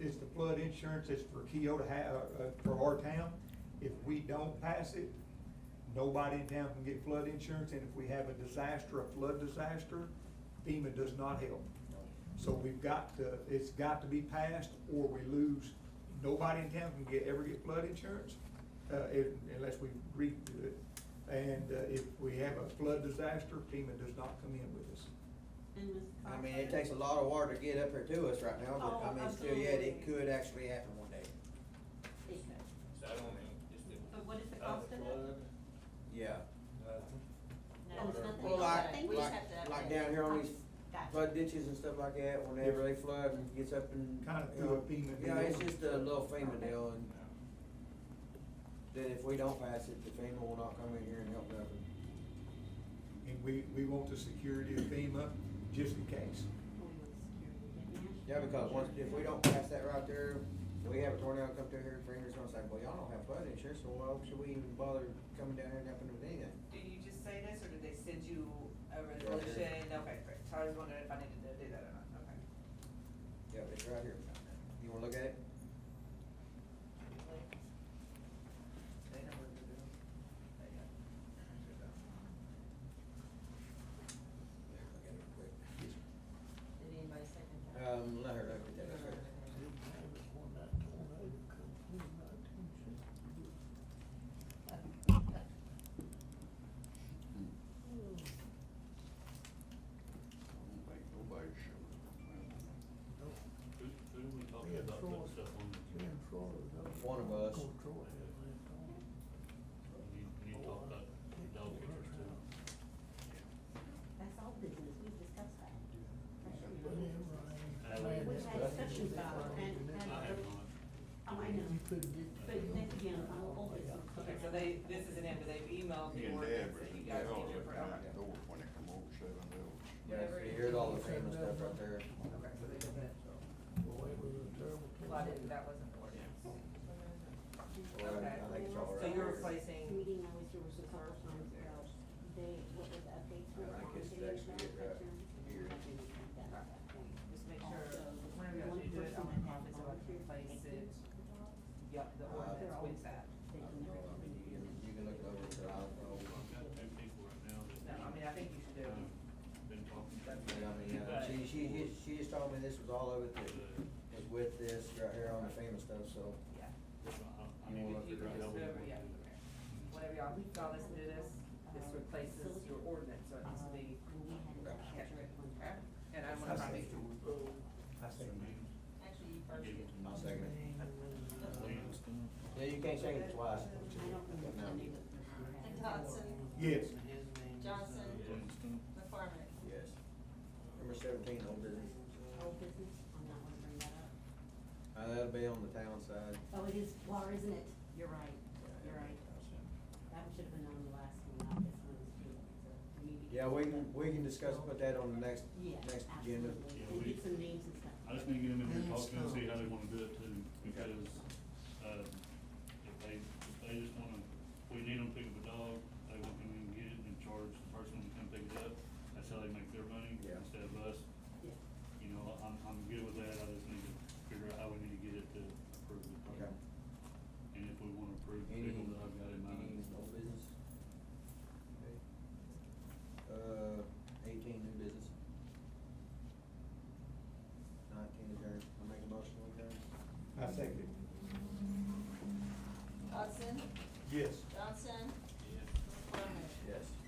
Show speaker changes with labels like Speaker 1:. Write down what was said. Speaker 1: it's uh, the flood insurance, it's for Keogh to have, uh, for our town. If we don't pass it, nobody in town can get flood insurance, and if we have a disaster, a flood disaster, FEMA does not help. So we've got to, it's got to be passed, or we lose, nobody in town can get, ever get flood insurance, uh, if- unless we redo it. And, uh, if we have a flood disaster, FEMA does not come in with us.
Speaker 2: And Ms.
Speaker 3: I mean,
Speaker 2: Cochran?
Speaker 3: it takes a lot of water to get up here to us right now, but I
Speaker 2: Oh,
Speaker 3: mean, still yet, it
Speaker 2: absolutely.
Speaker 3: could actually happen one day.
Speaker 2: It could.
Speaker 4: So I don't mean, just the.
Speaker 2: But what is the
Speaker 4: uh,
Speaker 2: cost of it?
Speaker 4: flood,
Speaker 3: Yeah.
Speaker 4: nothing.
Speaker 2: No, it's nothing.
Speaker 3: Well,
Speaker 2: I
Speaker 3: like,
Speaker 2: think we just have
Speaker 3: like,
Speaker 2: to
Speaker 3: like
Speaker 2: update
Speaker 3: down
Speaker 2: it.
Speaker 3: here on these
Speaker 2: Gotcha.
Speaker 3: flood ditches and stuff like that, whenever they flood and gets up and.
Speaker 1: Kinda
Speaker 3: you
Speaker 1: through a
Speaker 3: know,
Speaker 1: FEMA
Speaker 3: Yeah,
Speaker 1: deal.
Speaker 3: it's just a little FEMA deal, and then if we don't pass it, the FEMA will not come in here and help nothing.
Speaker 1: And we, we want the security of FEMA, just in case.
Speaker 3: Yeah, because once, if we don't pass that right there, we have a tornado come through here, FEMA's gonna say, well, y'all don't have flood insurance, so why should we even bother coming down here and helping with anything?
Speaker 5: Do you just say this, or did they send you a
Speaker 3: Right here.
Speaker 5: resolution? Okay, great, so I was wondering if I needed to do that or not, okay.
Speaker 3: Yeah, it's right here. You wanna look at it?
Speaker 5: They know what to do. They
Speaker 3: Yeah, look at
Speaker 5: got-
Speaker 3: it real quick.
Speaker 2: Did anybody second that?
Speaker 3: Um, let her look at that, real quick.
Speaker 4: Who, who do we talk about putting stuff on? the-
Speaker 3: One of us.
Speaker 4: You, you talk about dog pictures too.
Speaker 2: That's all business, we discussed that. We
Speaker 4: That's
Speaker 2: had discussions about it, and, and,
Speaker 4: I have not.
Speaker 2: oh, I know, but then again, I'm all business.
Speaker 5: Okay, so they, this is an end, but they've emailed the
Speaker 6: Me and
Speaker 5: ordinance that you
Speaker 6: Dad was in
Speaker 5: guys
Speaker 6: the
Speaker 5: need to approve.
Speaker 6: yard looking out the door when they come over seven hills.
Speaker 3: Yeah, so you heard all the FEMA stuff right there.
Speaker 5: Okay, so they did that, well, I didn't, that wasn't the ordinance.
Speaker 3: Well, I- I think it's all right
Speaker 5: So you're
Speaker 3: here.
Speaker 5: replacing,
Speaker 2: Meeting I was here was a couple times ago, they, what was the updates
Speaker 3: I
Speaker 2: were
Speaker 3: think
Speaker 2: on
Speaker 3: it's
Speaker 2: today's
Speaker 3: actually it right
Speaker 2: manufacturing,
Speaker 3: here.
Speaker 2: something like that at that point.
Speaker 5: just make sure,
Speaker 2: Also,
Speaker 5: whenever you
Speaker 2: one
Speaker 5: actually do it, I
Speaker 2: person
Speaker 5: want copies
Speaker 2: that had
Speaker 5: so I can
Speaker 2: volunteered to
Speaker 5: replace
Speaker 2: take
Speaker 5: it,
Speaker 2: these photographs,
Speaker 5: yep, the ordinance with that.
Speaker 2: they
Speaker 3: I
Speaker 2: can
Speaker 3: don't know,
Speaker 2: never
Speaker 3: I mean, you can, you can look it over, but I don't know.
Speaker 4: Oh, I've got two people right now
Speaker 5: No,
Speaker 4: that.
Speaker 5: I mean, I think you should do
Speaker 4: um,
Speaker 5: it.
Speaker 4: Been talking. to
Speaker 3: But
Speaker 4: me.
Speaker 3: I mean, uh, she, she, just- she just told me this was all over the, was with this right here on the FEMA stuff, so.
Speaker 5: Yeah.
Speaker 4: I- I- I
Speaker 3: You
Speaker 4: need
Speaker 3: wanna
Speaker 4: to
Speaker 3: look
Speaker 4: figure
Speaker 3: at
Speaker 4: out
Speaker 3: this?
Speaker 4: how we
Speaker 5: Whatever,
Speaker 4: want to
Speaker 5: yeah.
Speaker 4: do that.
Speaker 5: Whenever y'all, y'all listen to this, this replaces your ordinance, so it needs to be
Speaker 2: when Uh, we had it
Speaker 3: Okay.
Speaker 2: captured at one
Speaker 5: Okay,
Speaker 2: time.
Speaker 5: and I'm gonna probably.
Speaker 7: Actually, you first get.
Speaker 3: I'll second it.
Speaker 4: Please.
Speaker 3: Yeah, you can't second it twice.
Speaker 2: I don't remember the name of the program.
Speaker 7: Dodson,
Speaker 1: Yes,
Speaker 5: uh,
Speaker 7: Johnson, McCormick.
Speaker 3: Yes. Number seventeen, old business.
Speaker 2: Old business, I'm not gonna bring that up.
Speaker 3: Uh, that'll be on the town side.
Speaker 2: Oh, it is water, isn't it? You're right, you're right. That one should have been on the last one, not this one, it's too, so maybe.
Speaker 3: Yeah, we can, we can discuss, put that on the next,
Speaker 2: Yeah,
Speaker 3: next agenda.
Speaker 2: absolutely.
Speaker 4: Yeah,
Speaker 2: And
Speaker 4: we-
Speaker 2: get some names and stuff.
Speaker 4: I just need to get them in here and talk to them, and see how they wanna do it too, because, uh, if they, if they just wanna, we need them to pick up a dog, they want them to get it and charge the person to come pick it up, that's how they make their money,
Speaker 3: Yeah.
Speaker 4: instead of us.
Speaker 2: Yeah.
Speaker 4: You know, I'm, I'm good with that, I just need to figure out how we need to get it to approve the
Speaker 3: Okay.
Speaker 4: plan. And if we wanna approve the
Speaker 3: Any, any
Speaker 4: people that I've got in mind.
Speaker 3: old business? Okay. Uh, eighteen, new business. Nineteen, adjourn. I make a motion, we adjourn.
Speaker 1: I second it.
Speaker 7: Dodson,
Speaker 1: Yes.
Speaker 7: Johnson,
Speaker 4: Yeah.
Speaker 7: McCormick.
Speaker 3: Yes.